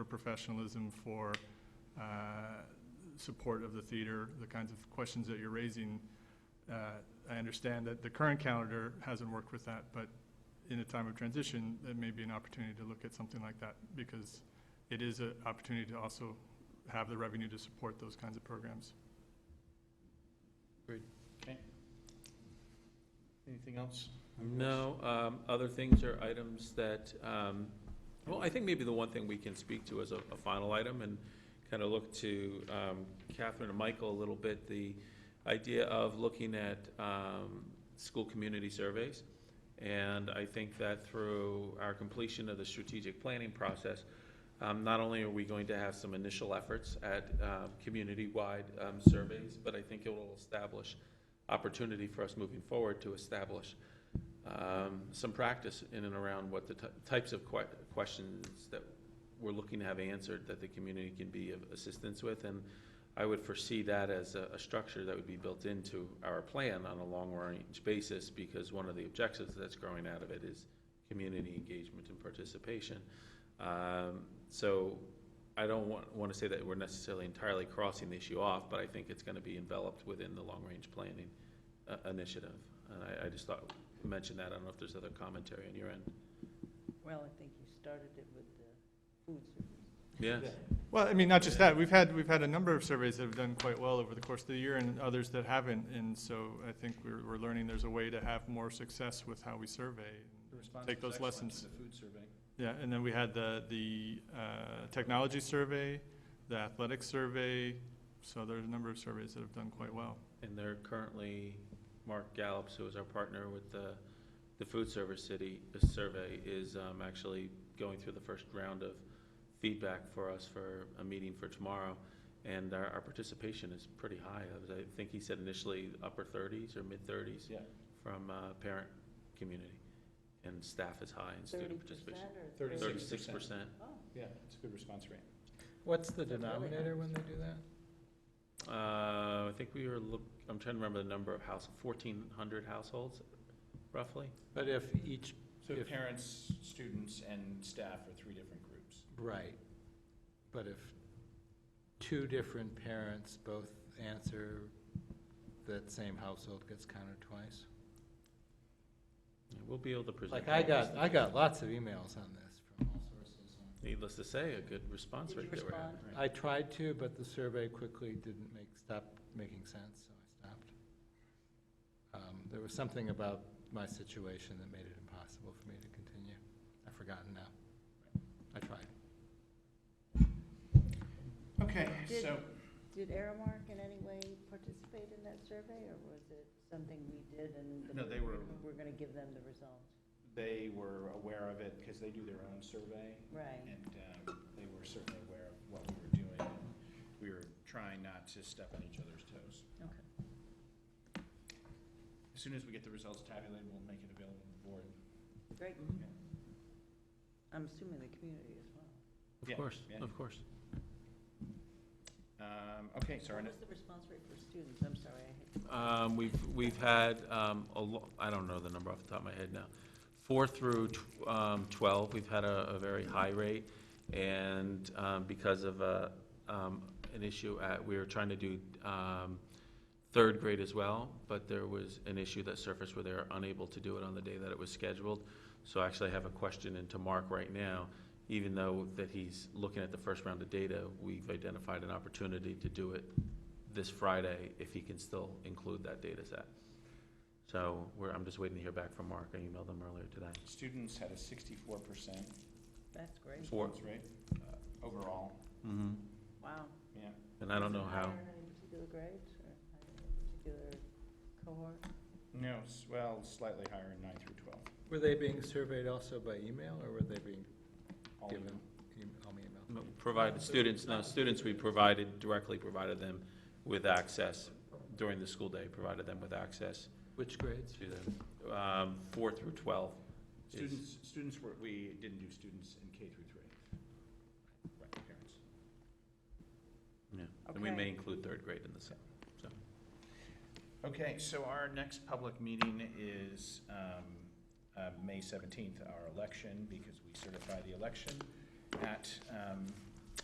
her professionalism, for uh, support of the theater, the kinds of questions that you're raising. Uh, I understand that the current calendar hasn't worked with that, but in a time of transition, that may be an opportunity to look at something like that because it is an opportunity to also have the revenue to support those kinds of programs. Anything else? No, um, other things are items that, um, well, I think maybe the one thing we can speak to as a, a final item and kind of look to, um, Catherine and Michael a little bit, the idea of looking at, um, school community surveys. And I think that through our completion of the strategic planning process, um, not only are we going to have some initial efforts at, um, community-wide, um, surveys, but I think it will establish opportunity for us moving forward to establish, um, some practice in and around what the ty- types of que- questions that we're looking to have answered that the community can be of assistance with. And I would foresee that as a, a structure that would be built into our plan on a long-range basis because one of the objectives that's growing out of it is community engagement and participation. Um, So I don't want, want to say that we're necessarily entirely crossing the issue off, but I think it's going to be enveloped within the long-range planning uh, initiative. And I, I just thought mention that. I don't know if there's other commentary on your end. Well, I think you started it with the food service. Yes. Well, I mean, not just that, we've had, we've had a number of surveys that have done quite well over the course of the year and others that haven't. And so I think we're, we're learning there's a way to have more success with how we survey. Take those lessons. The food survey. Yeah, and then we had the, the uh, technology survey, the athletic survey, so there's a number of surveys that have done quite well. And they're currently, Mark Gallops, who is our partner with the, the food service city, the survey is um, actually going through the first round of feedback for us for a meeting for tomorrow. And our, our participation is pretty high. I was- I think he said initially upper thirties or mid thirties Yeah, from uh, parent community. And staff is high and student participation. Thirty Thirty percent six. Thirty-six percent. or? 30? Oh, yeah, it's a good response rate. What's the That's really denominator nice. when they do that? Uh, I think we were look, I'm trying to remember the number of house, fourteen hundred households roughly. But if each, So If- parents, students, and staff are three different groups. right, but if two different parents both answer, that same household gets counted twice? Yeah, We'll be able to present. Like, I that. got, I got lots of emails on this from all sources. Needless to say, a good response Did you rate that we're having. respond? I tried to, but the survey quickly didn't make, stop making sense, so I stopped. Um, There was something about my situation that made it impossible for me to continue. I've forgotten now. I tried. Okay, Did- so, Did Aramark in any way participate in that survey, or was it something we did and? the- No, they were- We're gonna give them the results, they were aware of it because they do their own survey, right? and um, they were certainly aware of what we were doing. and We were trying not to step on each other's toes. Okay. As soon as we get the results tabulated, we'll make it available to the board. Great. Mm-hmm. I'm assuming the community as well. Yeah, Of course, yeah. of course. Um, Okay, so our What next was the response rate for students? I'm sorry, I hit. Um, we've, we've had, um, a lo, I don't know the number off the top of my head now. Four through, tw- um, twelve, we've had a, a very high rate. And, um, because of, uh, um, an issue at, we were trying to do, um, third grade as well, but there was an issue that surfaced where they were unable to do it on the day that it was scheduled. So actually I have a question into Mark right now, even though that he's looking at the first round of data, we've identified an opportunity to do it this Friday if he can still include that data set. So we're, I'm just waiting to hear back from Mark. I emailed him earlier today. students had a sixty-four percent That's great. Four. response rate uh, overall, Mm-hmm. Wow. yeah. And I don't know how, Higher in any particular grades or higher in any particular cohort? No, s- well, slightly higher in nine through twelve. Were they being surveyed also by email, or were they being All of given, them. em- all email? provided students, no, students we provided, directly provided them with access during the school day, provided them with access Which grades? to the, um, four through twelve. is- Students, students were, we didn't do students in K through three. Right, parents. Yeah, and we Okay. may include third grade in the same, so. Okay, so our next public meeting is um, uh, May seventeenth, our election, because we certify the election at um,